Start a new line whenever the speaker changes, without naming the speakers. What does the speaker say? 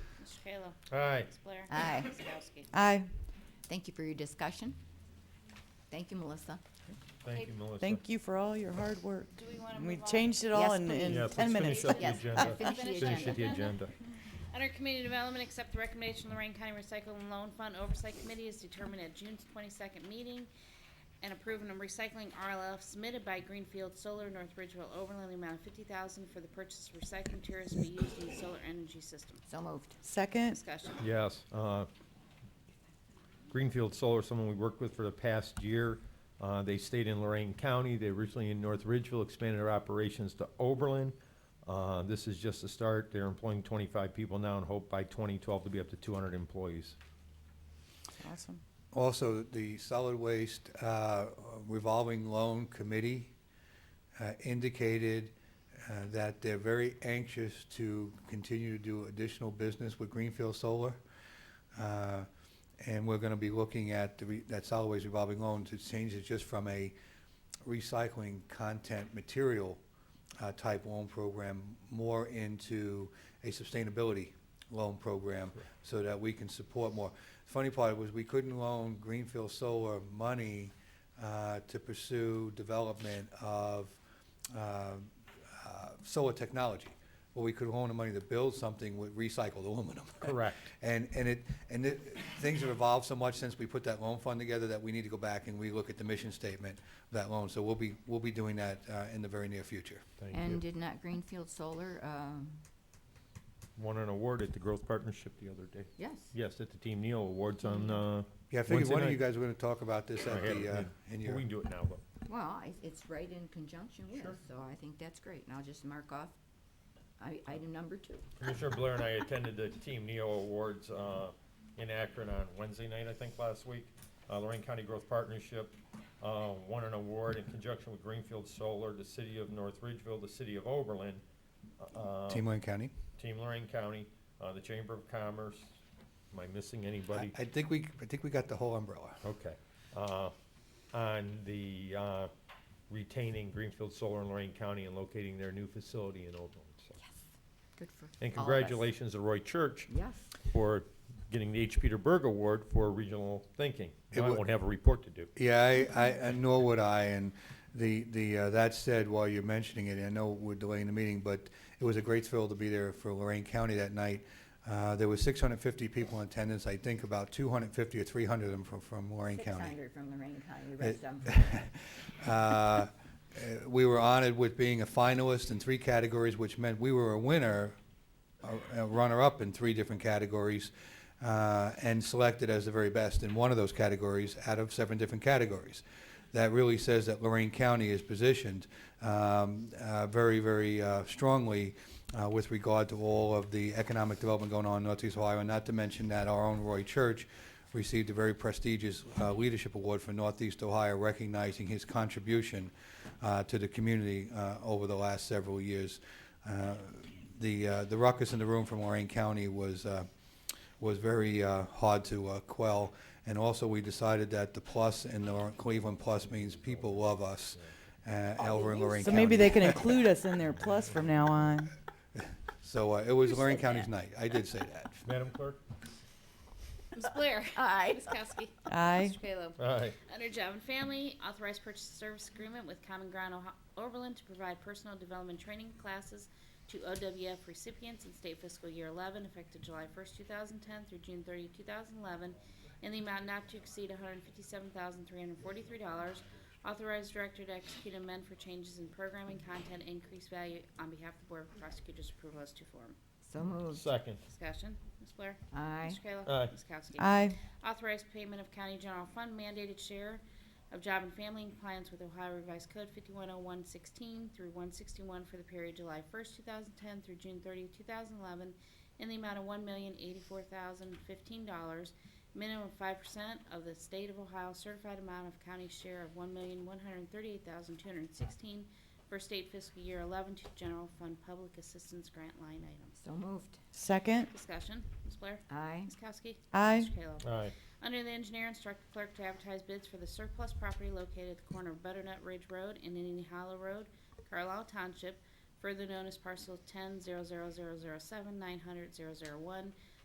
Mr. Kayla.
Aye.
Ms. Blair.
Aye.
Ms. Kowski.
Aye.
Thank you for your discussion. Thank you, Melissa.
Thank you, Melissa.
Thank you for all your hard work.
Do we wanna
We
move on?
changed it all
Yes,
in, in
please.
Yeah,
ten
please
minutes.
finish up the
Yes, uh,
agenda.
finish the
Finish
agenda.
the agenda.
Under Community Development, accept the recommendation of Lorraine County Recycle and Loan Fund Oversight Committee is determined at June twenty-second meeting and approve a recycling RLF submitted by Greenfield Solar North Ridgeville Overland, in the amount of fifty thousand for the purchase of recycling materials to be used in the solar energy system.
So moved.
Second,
Discussion.
Yes. uh, Greenfield Solar, someone we worked with for the past year. Uh, They stayed in Lorraine County. They originally in North Ridgeville, expanded their operations to Oberlin. Uh, This is just the start. They're employing 25 people now and hope by 2012 to be up to 200 employees.
awesome.
Also, the solid waste uh, revolving loan committee uh, indicated uh, that they're very anxious to continue to do additional business with Greenfield Solar. Uh, And we're going to be looking at the re- that solid waste revolving loan to change it just from a recycling content material uh, type loan program more into a sustainability loan program so that we can support more. Funny part was we couldn't loan Greenfield Solar money uh, to pursue development of uh, uh, solar technology, but we could loan the money to build something with recycled aluminum.
Correct.
And, and it, and it, things have evolved so much since we put that loan fund together that we need to go back and we look at the mission statement of that loan. So we'll be, we'll be doing that uh, in the very near future.
Thank
And
you.
did not Greenfield Solar, um,
Won an award at the Growth Partnership the other day.
yes.
Yes, at the Team Neal Awards on, uh,
Yeah, I figured
Wednesday
one of
night.
you guys were gonna talk about this
I
at
had it,
the, uh,
yeah.
in
Well,
your,
we can do it now, but.
Well, I- it's right in conjunction with,
Sure.
so I think that's great. And I'll just mark off i- item number two.
Commissioner Blair and I attended the Team Neo Awards uh, in Akron on Wednesday night, I think, last week. Uh, Lorraine County Growth Partnership uh, won an award in conjunction with Greenfield Solar, the City of North Ridgeville, the City of Oberlin, uh,
Team Lane County.
Team Lorraine County, uh, the Chamber of Commerce. Am I missing anybody?
I I think we, I think we got the whole umbrella.
Okay. Uh, On the uh, retaining Greenfield Solar in Lorraine County and locating their new facility in Oberlin. so.
Good for all of us.
And congratulations to Roy Church
Yes.
for getting the H. Peter Berg Award for regional thinking.
It
Now I
wa-
won't have a report to do.
Yeah, I, I, and nor would I, and the, the, uh, that said, while you're mentioning it, I know we're delaying the meeting, but it was a great thrill to be there for Lorraine County that night. Uh, there was six hundred and fifty people in attendance, I think about two hundred and fifty or three hundred of them from, from Lorraine
Six
County.
hundred from Lorraine County, the rest of 'em from
Uh, uh, we were honored with being a finalist in three categories, which meant we were a winner, a- a runner-up in three different categories, uh, and selected as the very best in one of those categories out of seven different categories. That really says that Lorraine County is positioned um, uh, very, very uh, strongly uh, with regard to all of the economic development going on in Northeast Ohio, and not to mention that our own Roy Church received a very prestigious uh, leadership award for Northeast Ohio, recognizing his contribution uh, to the community uh, over the last several years. Uh, the uh, the ruckus in the room from Lorraine County was uh, was very uh, hard to uh, quell, and also we decided that the plus in the Cleveland plus means people love us. Uh, over in Lorraine
So
County.
maybe they can include us in their plus from now on.
So uh, it was
You
Lorraine
said
County's
that.
night. I did say that.
Madam Clerk?
Ms. Blair.
Aye.
Ms. Kowski.
Aye,
Mr. Kayla.
Aye.
Under Job and Family, authorized purchase service agreement with Common Ground Oho- Oberlin to provide personal development training classes to OWF recipients in state fiscal year 11, effective July 1st, 2010 through June 30, 2011, in the amount not to exceed $157,343. Authorized director to execute amend for changes in programming content increase value on behalf of the Board of Prosecutors' approval as to form.
So moved.
Second.
Discussion. Ms. Blair?
Aye.
Mr. Kayla?
Aye.
Ms. Kowski?
aye,
Authorized payment of county general fund mandated share of job and family in compliance with Ohio Revised Code 510116 through 161 for the period July 1st, 2010 through June 30th, 2011, in the amount of $1,084,015, minimum of 5% of the state of Ohio certified amount of county share of $1,138,216 for state fiscal year 11 to general fund public assistance grant line items.
So moved.
second,
Discussion, Ms. Blair?
Aye.
Ms. Kowski?
aye,
Mr. Kayla?
Aye.
Under the engineer, instruct the clerk to advertise bids for the surplus property located at the corner of Butternut Ridge Road and Indian Hollow Road, Carlisle Township, further known as parcel ten zero zero zero zero seven nine hundred zero zero one,